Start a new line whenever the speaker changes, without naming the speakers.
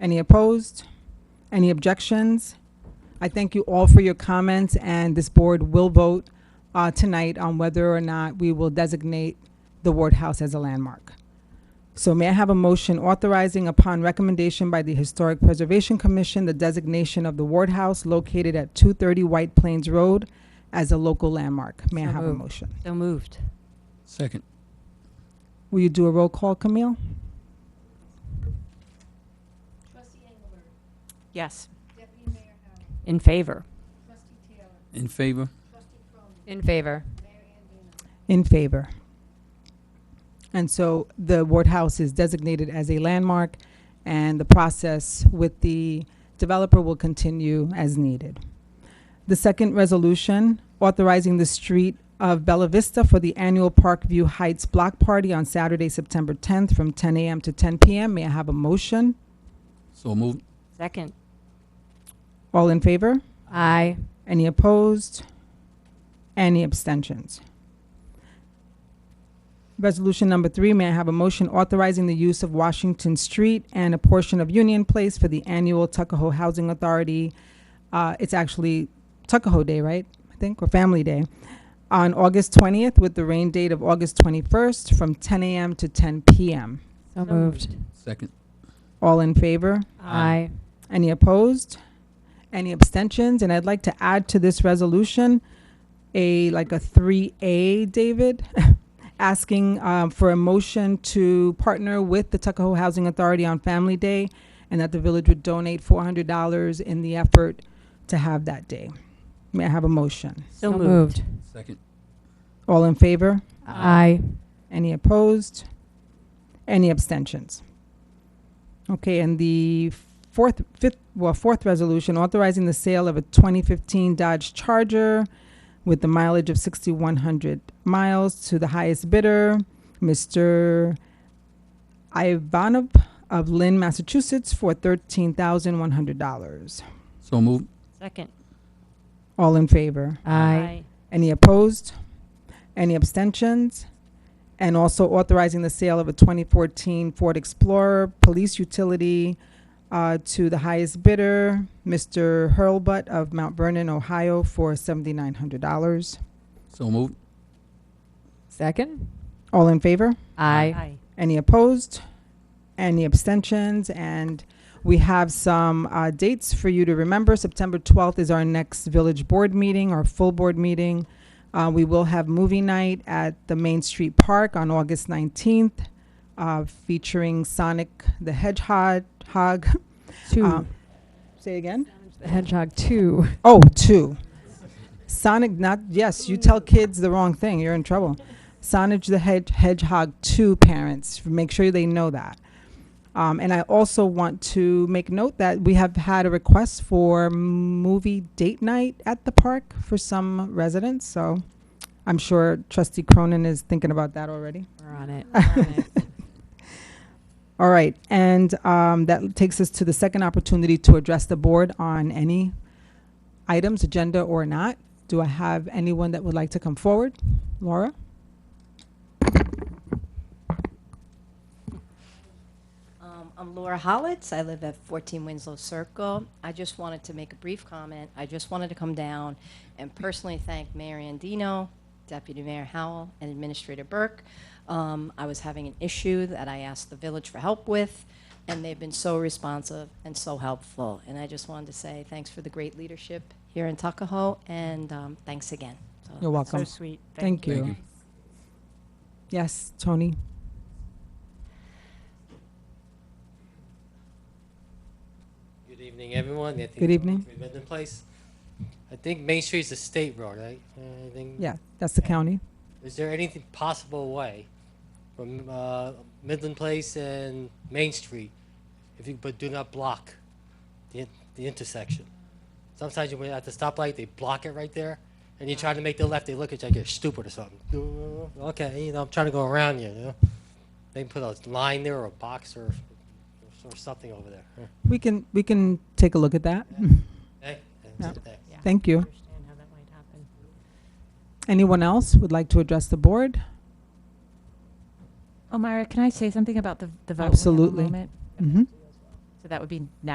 Any opposed? Any objections? I thank you all for your comments, and this board will vote uh, tonight on whether or not we will designate the Ward House as a landmark. So may I have a motion authorizing upon recommendation by the Historic Preservation Commission, the designation of the Ward House located at 230 White Plains Road as a local landmark? May I
So
have a
moved.
motion?
So moved.
Second.
Will you do a roll call, Camille?
Yes. In favor.
In favor?
In favor.
In favor. And so the Ward House is designated as a landmark, and the process with the developer will continue as needed. The second resolution, authorizing the street of Bella Vista for the annual Parkview Heights Block Party on Saturday, September 10th, from 10 a.m. to 10 p.m. May I have a motion?
So moved.
Second.
All in favor?
Aye.
Any opposed? Any abstentions? Resolution number three, may I have a motion authorizing the use of Washington Street and a portion of Union Place for the annual Tuckahoe Housing Authority? uh, It's actually Tuckahoe Day, right? I think, or Family Day, on August 20th with the rain date of August 21st from 10 a.m. to 10 p.m.
So moved. Um,
Second.
All in favor?
Aye.
Any opposed? Any abstentions? And I'd like to add to this resolution a, like a 3A, David, asking um, for a motion to partner with the Tuckahoe Housing Authority on Family Day and that the village would donate $400 in the effort to have that day. May I have a motion?
So moved.
Second.
All in favor?
Aye.
Any opposed? Any abstentions? Okay, and the fourth, fifth, well, fourth resolution authorizing the sale of a 2015 Dodge Charger with the mileage of 6,100 miles to the highest bidder, Mr. Ivanov of Lynn, Massachusetts, for $13,100.
So moved.
Second.
All in favor?
Aye.
Any opposed? Any abstentions? And also authorizing the sale of a 2014 Ford Explorer Police Utility uh, to the highest bidder, Mr. Hurlbut of Mount Vernon, Ohio, for $7,900.
So moved.
Second.
All in favor?
Aye.
Any opposed? Any abstentions? And we have some uh, dates for you to remember. September 12th is our next village board meeting, our full board meeting. Uh, We will have movie night at the Main Street Park on August 19th uh, featuring Sonic the Hedgehog. hog.
Two.
Um, Say again?
The Hedgehog two.
Oh, two. Sonic, not, yes, you tell kids the wrong thing, you're in trouble. Sonic the Hedge- Hedgehog 2 parents, make sure they know that. Um, and I also want to make note that we have had a request for movie date night at the park for some residents, so I'm sure trustee Cronin is thinking about that already.
We're on it. We're on it.
All right, and um, that takes us to the second opportunity to address the board on any items, agenda or not. Do I have anyone that would like to come forward? Laura?
Um, I'm Laura Hollitz. I live at 14 Winslow Circle. I just wanted to make a brief comment. I just wanted to come down and personally thank Mayor Andino, Deputy Mayor Howell, and Administrator Burke. Um, I was having an issue that I asked the village for help with, and they've been so responsive and so helpful. And I just wanted to say thanks for the great leadership here in Tuckahoe, and um, thanks again. So
You're
So
welcome.
sweet.
Thank you. Yes, Tony?
Good evening, everyone. Anthony
Good
Rowan,
evening.
Three Midland Place. I think Main Street's a state road, right? Uh, I think.
Yeah, that's the county.
Is there anything possible way from uh, Midland Place and Main Street, if you but do not block the in- the intersection? Sometimes you at the stoplight, they block it right there, and you try to make the left. They look at you like you're stupid or something. Okay, you know I'm trying to go around you. you know? They can put a line there or a box or or something over there. huh?
We can, we can take a look at that.
Okay?
Yeah.
Thanks.
Thank you. Anyone else would like to address the board?
Omira, can I say something about the, the vote?
Absolutely.
We have a moment?
Mm-hmm.
So that would be now.